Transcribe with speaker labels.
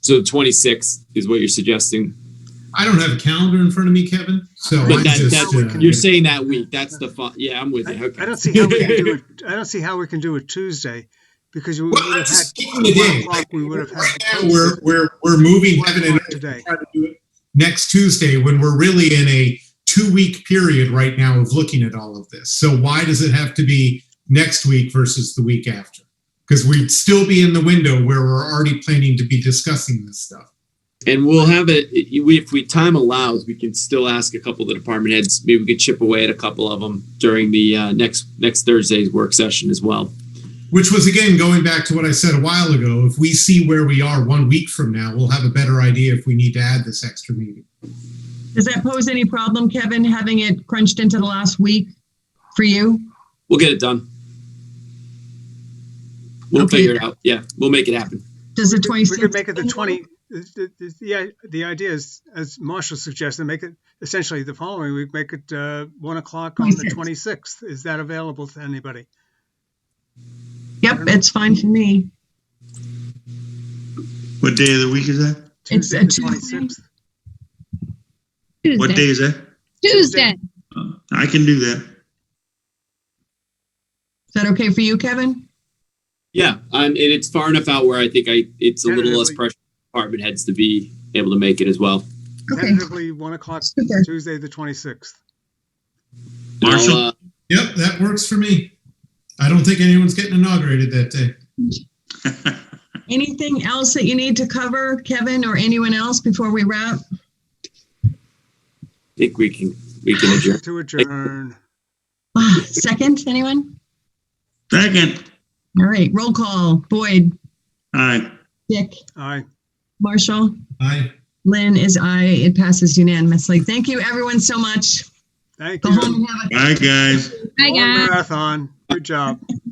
Speaker 1: So twenty-sixth is what you're suggesting.
Speaker 2: I don't have a calendar in front of me, Kevin, so
Speaker 1: But
Speaker 2: I
Speaker 1: that-
Speaker 2: just,
Speaker 3: that's-
Speaker 2: uh,
Speaker 1: You're saying that week. That's the fun. Yeah, I'm with you.
Speaker 3: I,
Speaker 1: Okay.
Speaker 3: I don't see how we can do it. I don't see how we can do it Tuesday because you would
Speaker 2: well,
Speaker 3: have
Speaker 2: I'm
Speaker 3: had
Speaker 2: just keeping
Speaker 3: one
Speaker 2: it in.
Speaker 3: o'clock. We would have
Speaker 2: Right
Speaker 3: had
Speaker 2: now, we're, we're, we're moving
Speaker 3: one
Speaker 2: heaven and
Speaker 3: o'clock
Speaker 2: earth
Speaker 3: today.
Speaker 2: try to do it next Tuesday when we're really in a two-week period right now of looking at all of this. So why does it have to be next week versus the week after? Because we'd still be in the window where we're already planning to be discussing this stuff.
Speaker 1: And we'll have it, we, if we, time allows, we can still ask a couple of the department heads. Maybe we could chip away at a couple of them during the, uh, next, next Thursday's work session as well.
Speaker 2: Which was again going back to what I said a while ago. If we see where we are one week from now, we'll have a better idea if we need to add this extra meeting.
Speaker 4: Does that pose any problem, Kevin, having it crunched into the last week for you?
Speaker 1: We'll get it done. We'll
Speaker 4: Okay.
Speaker 1: figure it out. Yeah, we'll make it happen.
Speaker 4: Does the
Speaker 3: We could
Speaker 4: 26th?
Speaker 3: make it the twenty. The, the- the, the idea is, as Marshall suggested, make it essentially the following week. Make it uh, one o'clock on the
Speaker 4: 26th.
Speaker 3: twenty sixth. Is that available to anybody?
Speaker 4: Yep, it's fine for me.
Speaker 5: What day of the week is that?
Speaker 4: It's a
Speaker 3: Tuesday, the
Speaker 4: Tuesday.
Speaker 3: 26th?
Speaker 5: What day
Speaker 6: Tuesday.
Speaker 5: is that?
Speaker 6: Tuesday.
Speaker 5: Uh, I can do that.
Speaker 4: Is that okay for you, Kevin?
Speaker 1: Yeah, um, and it's far enough out where I think I, it's a little less
Speaker 3: Tentatively.
Speaker 1: pressure on department heads to be able to make it as well.
Speaker 4: Okay,
Speaker 3: Tentatively one o'clock
Speaker 4: super.
Speaker 3: Tuesday the twenty sixth.
Speaker 1: And I'll,
Speaker 5: Marshall?
Speaker 1: uh,
Speaker 2: Yep, that works for me. I don't think anyone's getting inaugurated that day.
Speaker 4: Anything else that you need to cover, Kevin or anyone else before we wrap?
Speaker 1: I think we can, we can adjourn.
Speaker 3: To adjourn.
Speaker 4: Ah, Second, anyone?
Speaker 5: Second.
Speaker 4: All right, roll call. Boyd,
Speaker 5: All right.
Speaker 4: Dick,
Speaker 3: Aye.
Speaker 4: Marshall,
Speaker 2: Aye.
Speaker 4: Lynn is I. It passes unanimously. Thank you, everyone, so much.
Speaker 3: Thank
Speaker 4: Go
Speaker 3: you.
Speaker 4: home and have a
Speaker 5: Bye, guys.
Speaker 6: Hi,
Speaker 3: Long
Speaker 6: guys.
Speaker 3: Marathon. Good job.